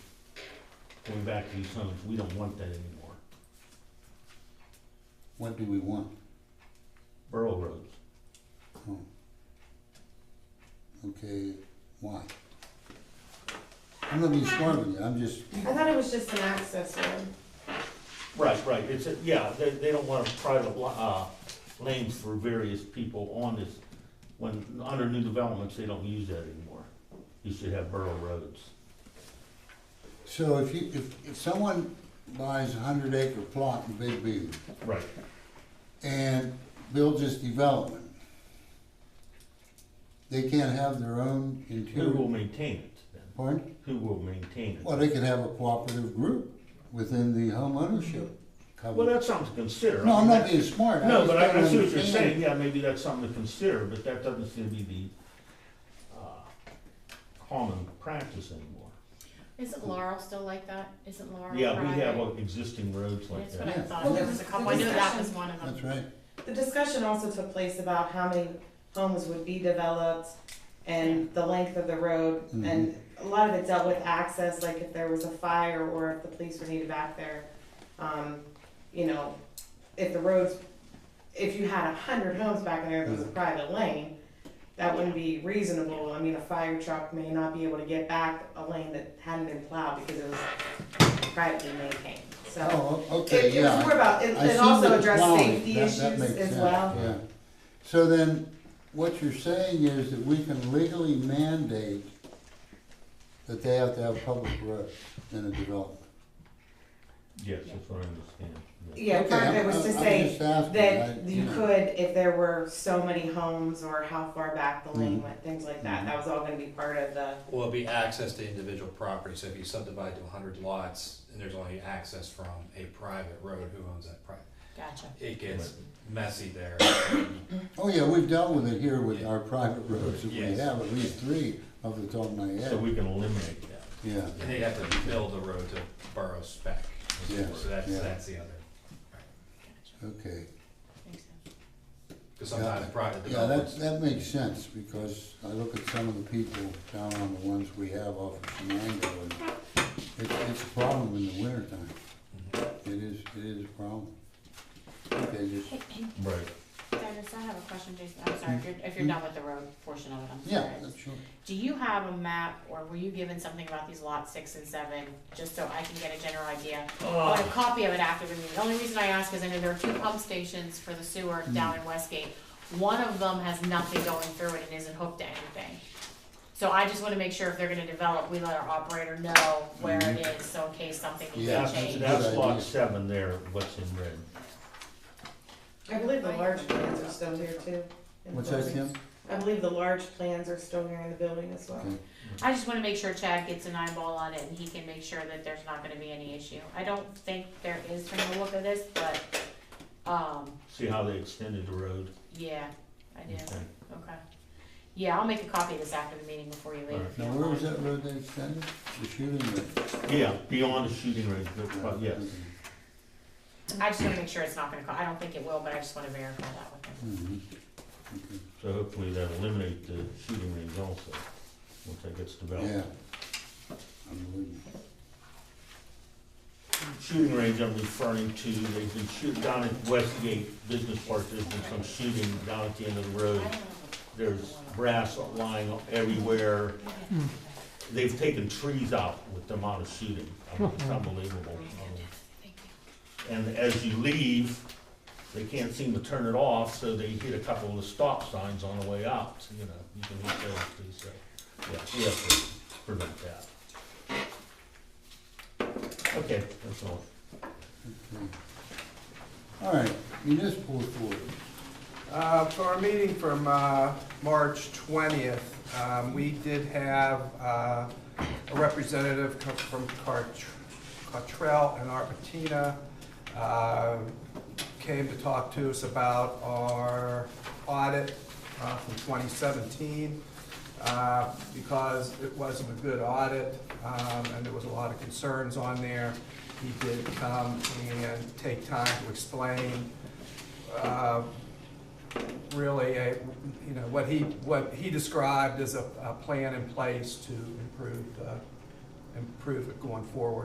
going back to these numbers, we don't want that anymore. What do we want? Borough roads, Oh. Okay, why? I'm not being smart with you, I'm just, I thought it was just an access road. right, right, it's, a- yeah, they, they don't want private, lo- uh, lanes for various people on this. When, under new developments, they don't use that anymore, you should have borough roads. so if you, if, if someone buys a hundred acre plot in Big Beaver Right. and builds this development, they can't have their own Who will interior, maintain it then? pardon? Who will maintain it? Well, they could have a cooperative group within the home ownership Well, covenant. that's something to consider. No, I I'm mean, not that- being smart. No, just but I, I don't see what you're understand. saying, yeah, maybe that's something to consider, but that doesn't seem to be the, uh, common practice anymore. Isn't Laurel still like that? Isn't Laurel Yeah, we have private? uh, existing roads like That's what that. I Yeah. thought, Well, there was a there's couple, I knew that was discussion. one of them. That's right. The discussion also took place about how many homes would be developed and the length of the road. And a lot of it dealt with access, like if there was a fire or if the police were needed back there. Um, you know, if the roads, if you had a hundred homes back in there, if it was a private lane, that wouldn't be reasonable. I mean, a fire truck may not be able to get back a lane that hadn't been plowed because it was privately maintained, so. Oh, okay, It, it yeah. was more about, it, I see it also the addressed plowing. safety That- issues that makes as sense, well. Yeah. So then, what you're saying is that we can legally mandate that they have to have public roads in a development? Yes, that's what I understand. yeah. Yeah, part of it was to say that you know. could, if there were so many homes or how far back the lane Mhm. went, things like that, Mhm. that was all gonna be part of the, Will it be access to individual property, so if you subdivide to hundred lots, and there's only access from a private road, who owns that private? Gotcha. It gets messy there. Oh, yeah, we've dealt with it here with our private roads, that we Yes. have at least three off the top of my So head, we can eliminate that. yeah. And they have to build a road to borough spec, Yes, so that's, yeah. that's the other, Gotcha. Okay, Makes sense. because sometimes private yeah, that, developments. that makes sense, because I look at some of the people down on the ones we have off of Shenango, and it's, it's a problem in the wintertime. Mhm. It is, it is a problem. Okay, just, Hey, hey, Right. Dennis, I have a question, Jason, I'm sorry, if you're, if you're done with the road portion of it, I'm yeah, sorry. that's sure. Do you have a map, or were you given something about these lots six and seven, just so I can get a general idea? I want a copy of it after the meeting, the only reason I ask is I know there are two pump stations for the sewer Hmm. down in Westgate. One of them has nothing going through it and isn't hooked to anything. So I just wanna make sure if they're gonna develop, we let our operator know where it is, so in case something Mm-hmm. needs Yeah, That's, to a change. that's good lot idea. seven there, what's in red. I believe the large plans are still here too. in the What's that, building. Kim? I believe the large plans are still here in the building as well. Okay. I just wanna make sure Chad gets an eyeball on it and he can make sure that there's not gonna be any issue. I don't think there is from the look of this, but, um, See how they extended the road? yeah, I do, Okay. okay. Yeah, I'll make a copy of this after the meeting before you leave. if you Now, don't where was mind. that road they extended? The shooting road? Yeah, beyond the shooting range, but, but Uh, yes. I just wanna make sure it's not gonna, co- I don't think it will, but I just wanna verify that with him. Mhm. Okay. So hopefully that eliminate the shooting range also, once that gets Yeah. developed. Unbelievable. Shooting range I'm referring to, they've been shooting down at Westgate Business Park, there's been some shooting down at the end of the road. There's brass lying everywhere. They've taken trees out with the amount of shooting. I mean, It's unbelievable. Um, And as you leave, they can't seem to turn it off, so they hit a couple of the stop signs on the way out, you know, you can hit those too, so, yeah, we have to prevent that. Okay, that's all. All right, municipal authority. Uh, For our meeting from uh, March 20th, um, we did have uh, a representative co- from Cart- Cottrell and Arpentina uh, came to talk to us about our audit uh, from 2017. uh, Because it wasn't a good audit um, and there was a lot of concerns on there, he did come and take time to explain uh, really a, you know, what he, what he described as a, a plan in place to improve, uh, improve it going forward.